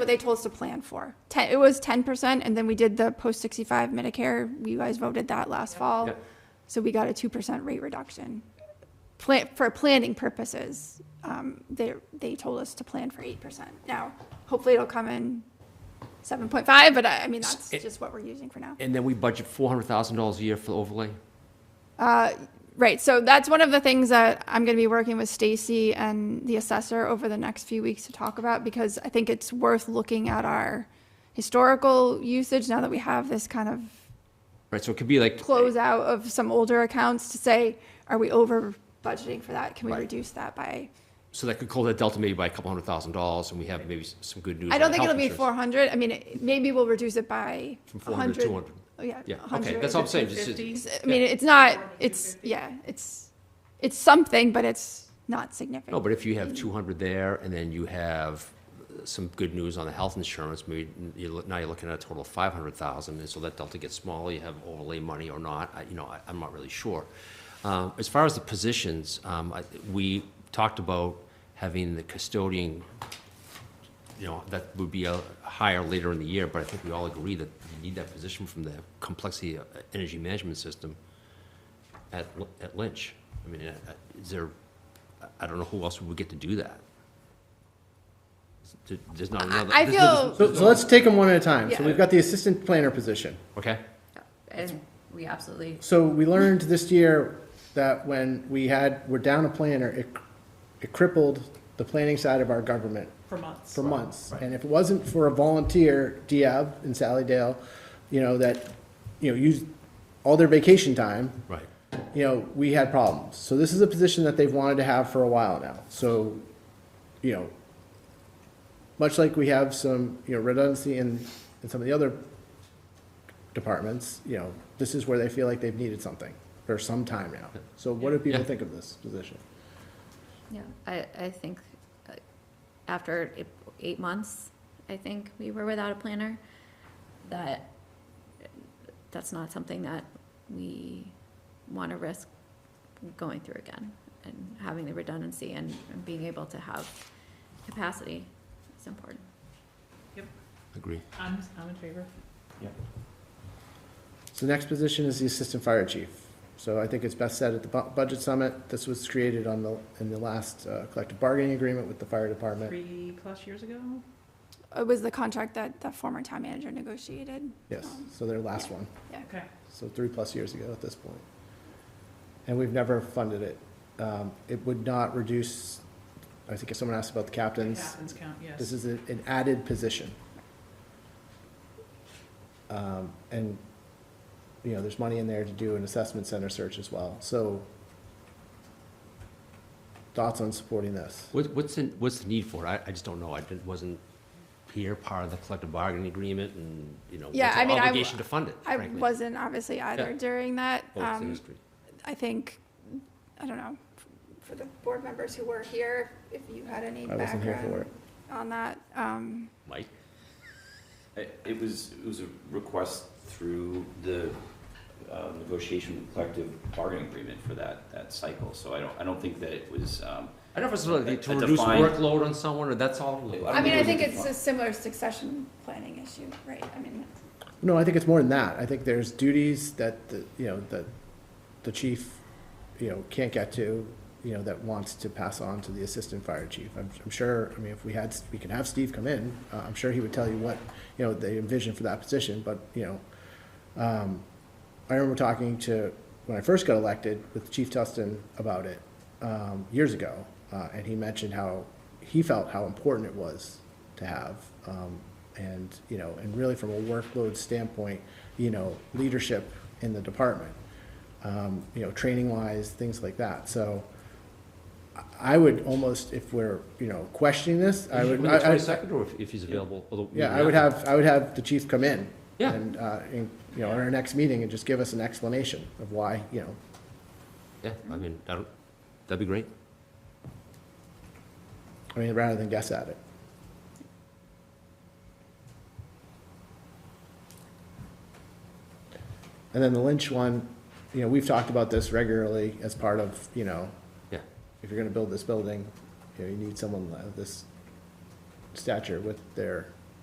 what they told us to plan for. Ten, it was ten percent, and then we did the post sixty-five Medicare. You guys voted that last fall, Yep. so we got a two percent rate reduction. Plan, for planning purposes, um, they, they told us to plan for eight percent. Now, hopefully it'll come in seven point five, but I, I mean, that's It- just what we're using for now. And then we budget four hundred thousand dollars a year for the overlay. Right, so that's one of the things that I'm gonna be working with Stacy and the assessor over the next few weeks to talk about, because I think it's worth looking at our historical usage now that we have this kind of Right, so it could be like, closeout of some older accounts to say, are we over budgeting for that? Can we Right. reduce that by? so that could close that delta maybe by a couple hundred thousand dollars, and we have maybe s- some good news. I on don't think health it'll be insurance. four hundred, I mean, it- maybe we'll reduce it by From 400 to hundred. Oh, 200. Yeah. Yeah, 100. okay, that's all I'm saying, just, It's- I mean, it's not, it's, yeah, it's, it's something, but it's not significant. no, but if you have two hundred there, and then you have some good news on the health insurance, maybe you, look- now you're looking at a total of five hundred thousand, and so that delta gets smaller, you have overlay money or not, I, you know, I, I'm not really sure. Um, as far as the positions, um, I, we talked about having the custodian you know, that would be a higher later in the year, but I think we all agree that you need that position from the complexity of uh, energy management system at, L- at Lynch. I mean, uh, uh, is there, I- I don't know who else would get to do that. There- There's not another. I there's no- feel. So, so let's take them one at a time. So Yeah. we've got the assistant planner position. Okay, And we absolutely, So we learned this year that when we had, we're down a planner, it, it crippled the planning side of our government for months. for months. And if it wasn't for a volunteer, Diab in Sally Dale, you know, that, you know, used all their vacation time, right. you know, we had problems. So this is a position that they've wanted to have for a while now. So, you know, much like we have some, you know, redundancy in, in some of the other departments, you know, this is where they feel like they've needed something for some time now. So what do people Yeah. think of this position? yeah, I, I think uh, after eight- eight months, I think we were without a planner, that, that's not something that we want to risk going through again and having the redundancy and and being able to have capacity is important. Agree. I'm, I'm in favor. So the next position is the assistant fire chief. So I think it's best said at the bu- budget summit. This was created on the, in the last uh, collective bargaining agreement with the fire department. Three plus years ago? It was the contract that the former town manager negotiated. Yes, so their last one. Okay. so three plus years ago at this point. And we've never funded it. Um, It would not reduce, I think if someone asked about the captains, Captains count, this yes. is a- an added position. Um, And, you know, there's money in there to do an assessment center search as well, so thoughts on supporting this? What, what's the, what's the need for it? I, I just don't know. I didn't- wasn't here part of the collective bargaining agreement and, you know, what's Yeah, I our mean, I w- obligation to fund it, I frankly. wasn't obviously either Yeah. during that. Oh, it's Um, industry. I think, I don't know, for the board members who were here, if you had any I wasn't here for background on that. um, Mike? It it was, it was a request through the uh, negotiation collective bargaining agreement for that, that cycle. So I don't, I don't think that it was, um, I don't know if it's really A- to a reduce defined- workload on someone, or that's all. I I don't mean, think I it think was a it's defi- a similar succession planning issue, right? I mean, No, I think it's more than that. I think there's duties that, the you know, that the chief, you know, can't get to, you know, that wants to pass on to the assistant fire chief. I'm, I'm sure, I mean, if we had, we could have Steve come in, uh, I'm sure he would tell you what, you know, they envision for that position, but, you know, um, I remember talking to, when I first got elected, with Chief Tustin about it, um, years ago, uh, and he mentioned how he felt how important it was to have, um, and, you know, and really from a workload standpoint, you know, leadership in the department, um, you know, training-wise, things like that, so I- I would almost, if we're, you know, questioning this, I would. I- I- Twenty-second, or if, if he's available? although we yeah, don't I would have, I would have the chief come in. Yeah. And, uh, and, you know, at our next meeting and just give us an explanation of why, you know, Yeah, I mean, I don't, that'd be great. I mean, rather than guess at it. And then the Lynch one, you know, we've talked about this regularly as part of, you know, Yeah, if you're gonna build this building, you know, you need someone of this stature with their